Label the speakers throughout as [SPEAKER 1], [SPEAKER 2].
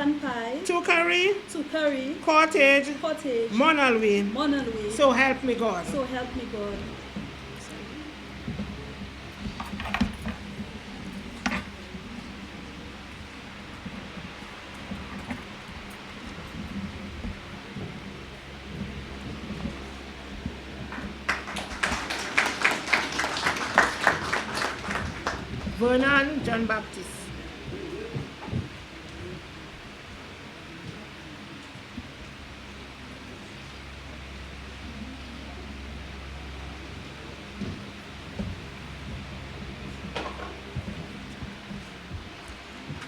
[SPEAKER 1] 7.5,
[SPEAKER 2] Tuckery,
[SPEAKER 1] to Curry,
[SPEAKER 2] Cottage,
[SPEAKER 1] Cottage,
[SPEAKER 2] Monalwin.
[SPEAKER 1] Monalway.
[SPEAKER 2] So help me God.
[SPEAKER 1] So help me God.
[SPEAKER 2] Vernon John Baptist.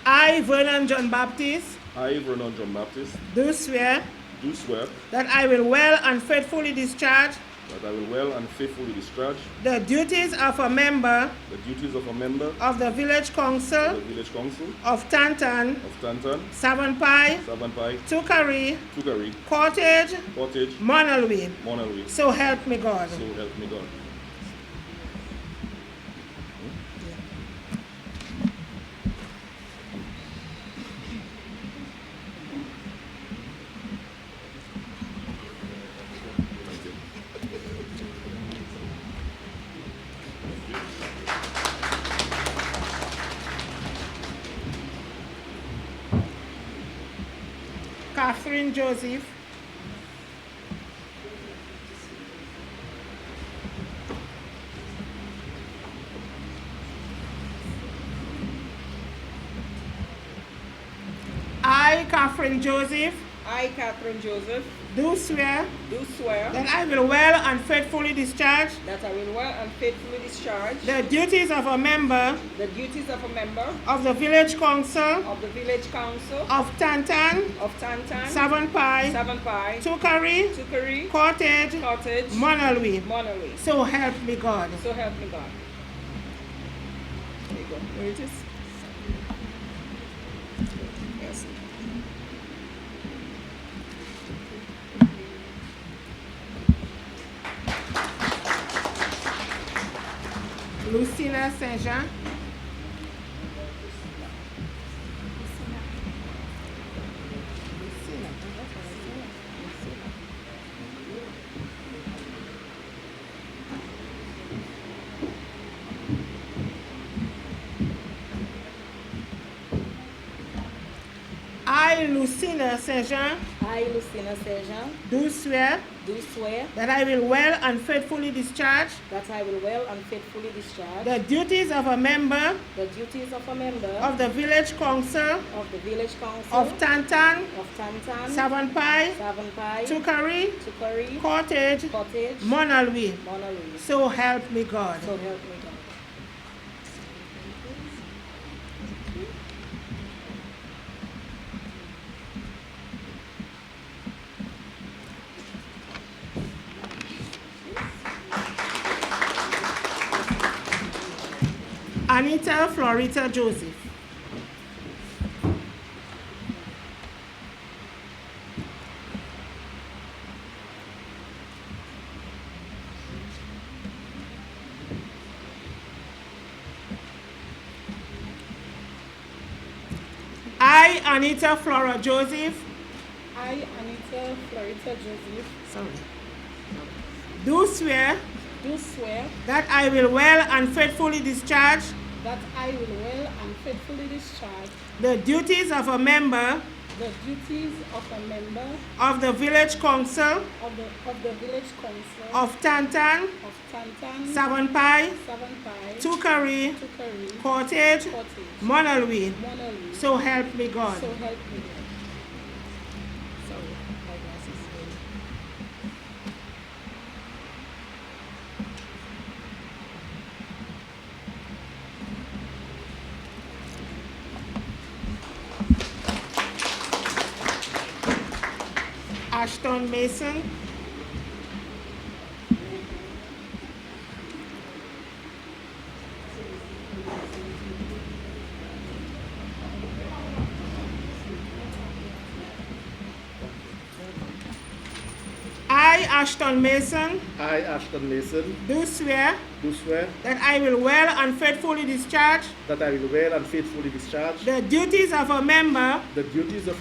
[SPEAKER 2] I, Vernon John Baptist,
[SPEAKER 3] I, Vernon John Baptist,
[SPEAKER 2] do swear
[SPEAKER 3] do swear
[SPEAKER 2] that I will well and faithfully discharge
[SPEAKER 3] that I will well and faithfully discharge
[SPEAKER 2] the duties of a member
[SPEAKER 3] the duties of a member
[SPEAKER 2] of the Village
[SPEAKER 3] of the
[SPEAKER 2] Council
[SPEAKER 3] Village Council
[SPEAKER 2] of Tantan,
[SPEAKER 3] of Tantan,
[SPEAKER 2] Savonpai,
[SPEAKER 3] Savanpai,
[SPEAKER 2] Tukari,
[SPEAKER 3] Tukari,
[SPEAKER 2] Cottage,
[SPEAKER 3] Portage,
[SPEAKER 2] Monalwin.
[SPEAKER 3] Monterey.
[SPEAKER 2] So help me God.
[SPEAKER 3] So help me God.
[SPEAKER 2] Catherine Joseph. I, Catherine Joseph,
[SPEAKER 4] I, Catherine Joseph,
[SPEAKER 2] do swear
[SPEAKER 4] do swear
[SPEAKER 2] that I will well and faithfully discharge
[SPEAKER 4] that I will well and faithfully discharge
[SPEAKER 2] the duties of a member
[SPEAKER 4] the duties of a member
[SPEAKER 2] of the Village Council
[SPEAKER 4] of the Village Council
[SPEAKER 2] of Tantan,
[SPEAKER 4] of Tantan,
[SPEAKER 2] Savonpai,
[SPEAKER 4] Savanpai,
[SPEAKER 2] Tukari,
[SPEAKER 4] Tukari,
[SPEAKER 2] Cottage,
[SPEAKER 4] Cottage,
[SPEAKER 2] Monalwin.
[SPEAKER 4] Monterey.
[SPEAKER 2] So help me God.
[SPEAKER 4] So help me God. There you go. Where it is? Yes.
[SPEAKER 2] Lucina Saint Jean. I, Lucina Saint Jean,
[SPEAKER 4] I, Lucina Sejan,
[SPEAKER 2] do swear
[SPEAKER 4] do swear
[SPEAKER 2] that I will well and faithfully discharge
[SPEAKER 4] that I will well and faithfully discharge
[SPEAKER 2] the duties of a member
[SPEAKER 4] the duties of a member
[SPEAKER 2] of the Village Council
[SPEAKER 4] of the Village Council
[SPEAKER 2] of Tantan,
[SPEAKER 4] of Tantan,
[SPEAKER 2] Savonpai,
[SPEAKER 4] Savanpai,
[SPEAKER 2] Tukari,
[SPEAKER 4] Tukari,
[SPEAKER 2] Cottage,
[SPEAKER 4] Cottage,
[SPEAKER 2] Monalwin.
[SPEAKER 4] Monterey.
[SPEAKER 2] So help me God.
[SPEAKER 4] So help me God.
[SPEAKER 2] Anita Florita Joseph. I, Anita Flora Joseph,
[SPEAKER 4] I, Anita Florita Joseph,
[SPEAKER 2] sorry, do swear
[SPEAKER 4] do swear
[SPEAKER 2] that I will well and faithfully discharge
[SPEAKER 4] that I will well and faithfully discharge
[SPEAKER 2] the duties of a member
[SPEAKER 4] the duties of a member
[SPEAKER 2] of the Village Council
[SPEAKER 4] of the, of the Village Council
[SPEAKER 2] of Tantan,
[SPEAKER 4] of Tantan,
[SPEAKER 2] Savonpai,
[SPEAKER 4] Savanpai,
[SPEAKER 2] Tukari,
[SPEAKER 4] Tukari,
[SPEAKER 2] Cottage,
[SPEAKER 4] Cottage,
[SPEAKER 2] Monalwin.
[SPEAKER 4] Monterey.
[SPEAKER 2] So help me God.
[SPEAKER 4] So help me God. Sorry, my glasses.
[SPEAKER 2] Ashton Mason. I, I, Ashton Mason,
[SPEAKER 5] I, Ashton Mason,
[SPEAKER 2] do swear
[SPEAKER 5] do swear
[SPEAKER 2] that I will well and faithfully discharge
[SPEAKER 5] that I will well and faithfully discharge
[SPEAKER 2] the duties of a member
[SPEAKER 5] the duties of